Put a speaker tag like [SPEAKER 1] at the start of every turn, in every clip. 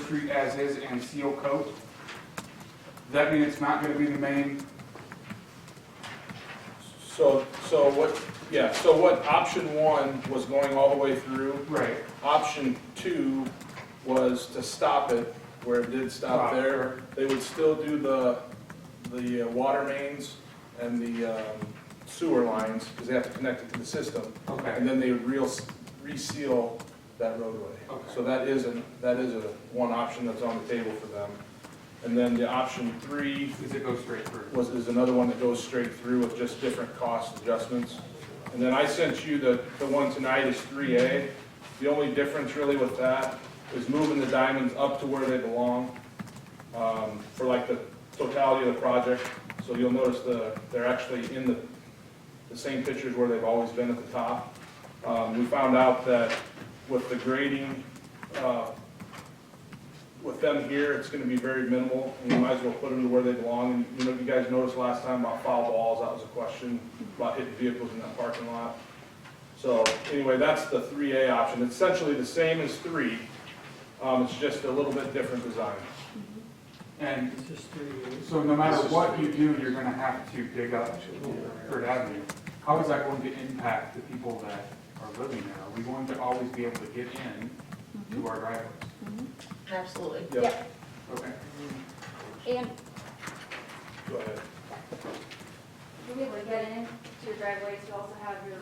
[SPEAKER 1] Street as is and seal coat. Does that mean it's not gonna be the main?
[SPEAKER 2] So, so what, yeah, so what option one was going all the way through,
[SPEAKER 1] Right.
[SPEAKER 2] option two was to stop it where it did stop there. They would still do the, the uh, water mains and the um, sewer lines, because they have to connect it to the system.
[SPEAKER 1] Okay,
[SPEAKER 2] And then they would real, reseal that roadway.
[SPEAKER 1] Okay.
[SPEAKER 2] So that is an, that is a, one option that's on the table for them. And then the option three
[SPEAKER 1] does it go straight through?
[SPEAKER 2] was, is another one that goes straight through with just different cost adjustments. And then I sent you the, the one tonight is three A. The only difference really with that is moving the diamonds up to where they belong, um, for like the totality of the project. So you'll notice the, they're actually in the, the same pictures where they've always been at the top. Um, we found out that with the grading, uh, with them here, it's gonna be very minimal, and you might as well put them to where they belong. And, you know, if you guys noticed last time about foul balls, that was a question, about hitting vehicles in that parking lot. So, anyway, that's the three A option, It's essentially the same as three, um, it's just a little bit different design.
[SPEAKER 1] And
[SPEAKER 3] It's just three years.
[SPEAKER 1] so no matter what you do, you're gonna have to dig up Third Avenue. How is that going to impact the people that are living there? Are we going to always be able to get in to our driveways?
[SPEAKER 4] Absolutely.
[SPEAKER 2] Yep,
[SPEAKER 1] Okay.
[SPEAKER 5] And
[SPEAKER 2] go ahead.
[SPEAKER 5] you'll be able to get into your driveways, you also have your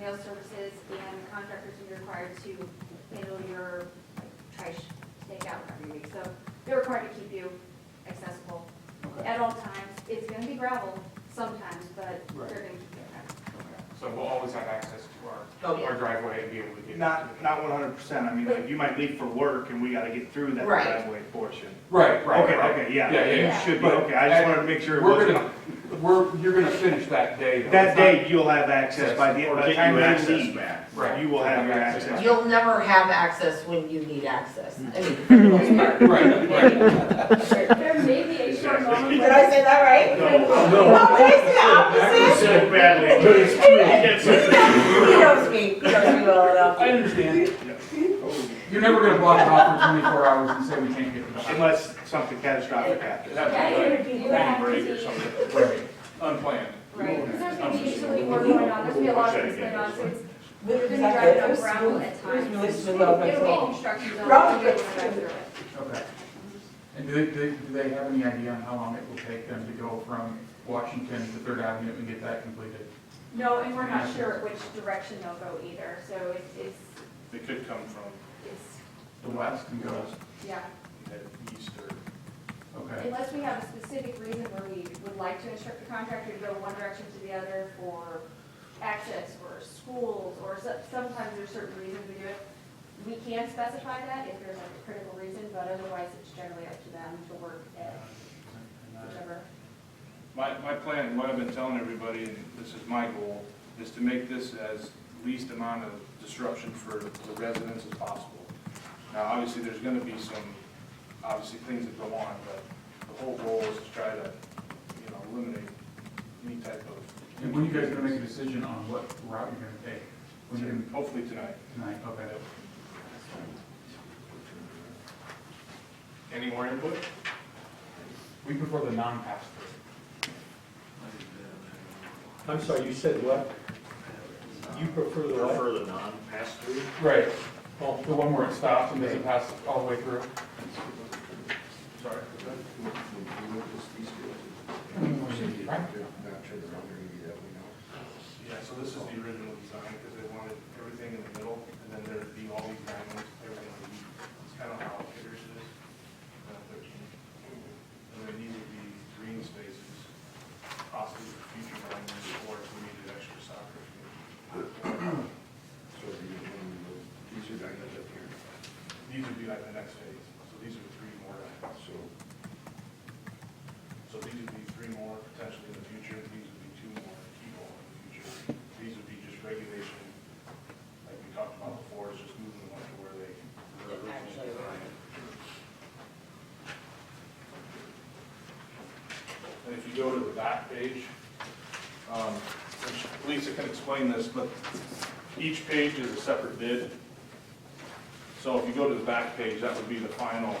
[SPEAKER 5] mail services and contractors will be required to handle your like, trash take out every week. So they're required to keep you accessible
[SPEAKER 1] Okay.
[SPEAKER 5] at all times. It's gonna be gravel sometimes, but they're
[SPEAKER 1] Right.
[SPEAKER 5] gonna keep you accessible.
[SPEAKER 1] So we'll always have access to
[SPEAKER 4] Oh,
[SPEAKER 1] our, our driveway and be able to get. in.
[SPEAKER 6] Not, not one hundred percent, I mean, like, you might leave for work and we gotta get through that
[SPEAKER 4] Right.
[SPEAKER 6] driveway portion.
[SPEAKER 1] Right, right,
[SPEAKER 6] Okay,
[SPEAKER 1] right.
[SPEAKER 6] okay, yeah,
[SPEAKER 1] Yeah,
[SPEAKER 6] you
[SPEAKER 1] yeah.
[SPEAKER 6] should be,
[SPEAKER 1] But-
[SPEAKER 6] okay, I just wanted to make sure it
[SPEAKER 1] We're
[SPEAKER 6] wasn't.
[SPEAKER 1] gonna, we're, you're gonna finish that day though.
[SPEAKER 6] That
[SPEAKER 1] It's not-
[SPEAKER 6] day, you'll have access by the,
[SPEAKER 7] Or
[SPEAKER 6] by the
[SPEAKER 7] get
[SPEAKER 6] time
[SPEAKER 7] you
[SPEAKER 6] you
[SPEAKER 7] access
[SPEAKER 6] leave,
[SPEAKER 7] back.
[SPEAKER 1] Right.
[SPEAKER 6] you will have your
[SPEAKER 1] Access.
[SPEAKER 6] access.
[SPEAKER 4] You'll never have access when you need access. I mean, for the most part.
[SPEAKER 1] Right, right.
[SPEAKER 5] There may be a short moment.
[SPEAKER 4] Did I say that right? No, did I say the opposite?
[SPEAKER 6] So badly.
[SPEAKER 4] He knows me, he knows me well enough.
[SPEAKER 1] I understand. You're never gonna block it off for twenty-four hours and say we can't get it done.
[SPEAKER 6] Unless something catastrophic happens.
[SPEAKER 5] Yeah, you have to
[SPEAKER 2] Break
[SPEAKER 5] be-
[SPEAKER 2] or something, right, unplanned.
[SPEAKER 5] Right, because there's gonna be usually more going on, there's gonna be a lot of things going on, so it's
[SPEAKER 4] Where
[SPEAKER 5] You're
[SPEAKER 4] was
[SPEAKER 5] gonna
[SPEAKER 4] that?
[SPEAKER 5] drive it
[SPEAKER 4] It
[SPEAKER 5] on
[SPEAKER 4] was
[SPEAKER 5] gravel
[SPEAKER 4] smooth.
[SPEAKER 5] at
[SPEAKER 4] It was
[SPEAKER 5] times.
[SPEAKER 4] really smooth up
[SPEAKER 5] It'll
[SPEAKER 4] as
[SPEAKER 5] be a
[SPEAKER 4] well.
[SPEAKER 5] construction zone.
[SPEAKER 4] Gravel
[SPEAKER 5] you'll be
[SPEAKER 4] gets
[SPEAKER 5] able to drive
[SPEAKER 4] smooth.
[SPEAKER 1] Okay. And do they, do do they have any idea on how long it will take them to go from Washington to Third Avenue and get that completed?
[SPEAKER 5] No, and we're not sure which direction they'll go either, so it's, it's,
[SPEAKER 2] They could come from
[SPEAKER 5] it's,
[SPEAKER 1] The west can go,
[SPEAKER 5] yeah.
[SPEAKER 2] east or.
[SPEAKER 1] okay.
[SPEAKER 5] Unless we have a specific reason where we would like to instruct the contractor to go one direction to the other for access or schools, or so- sometimes there's certain reasons we do it. We can specify that if there's like a critical reason, but otherwise it's generally up to them to work at whichever.
[SPEAKER 2] My, my plan, what I've been telling everybody, and this is my goal, is to make this as least amount of disruption for the residents as possible. Now, obviously, there's gonna be some, obviously, things that go on, but the whole goal is to try to, you know, eliminate any type of.
[SPEAKER 1] And when you guys gonna make a decision on what route you're gonna take? When you're gonna,
[SPEAKER 2] Hopefully tonight.
[SPEAKER 1] tonight, okay.
[SPEAKER 2] Any more input?
[SPEAKER 1] Week before the non-pass
[SPEAKER 3] I'm sorry, you said what? You prefer the what?
[SPEAKER 7] Prefer the non-pass through?
[SPEAKER 1] through. Right. Well, the one where it stops and doesn't pass all the way through.
[SPEAKER 2] Sorry.
[SPEAKER 1] Mm.
[SPEAKER 2] Yeah, so this is the original design, because they wanted everything in the middle, and then there'd be all these diamonds, everything on each. It's kind of how it figures it is. uh, thirteen. And then these would be green spaces, possibly for future diamonds, or if we needed extra soccer. field. These would be like the next phase, so these are three more diamonds. So. So these would be three more potentially in the future, these would be two more key goal in the future. These would be just regulation, like we talked about before, it's just moving them up to where they. where they're
[SPEAKER 4] Actually, right.
[SPEAKER 2] And if you go to the back page, um, which Lisa can explain this, but each page is a separate bid. So if you go to the back page, that would be the final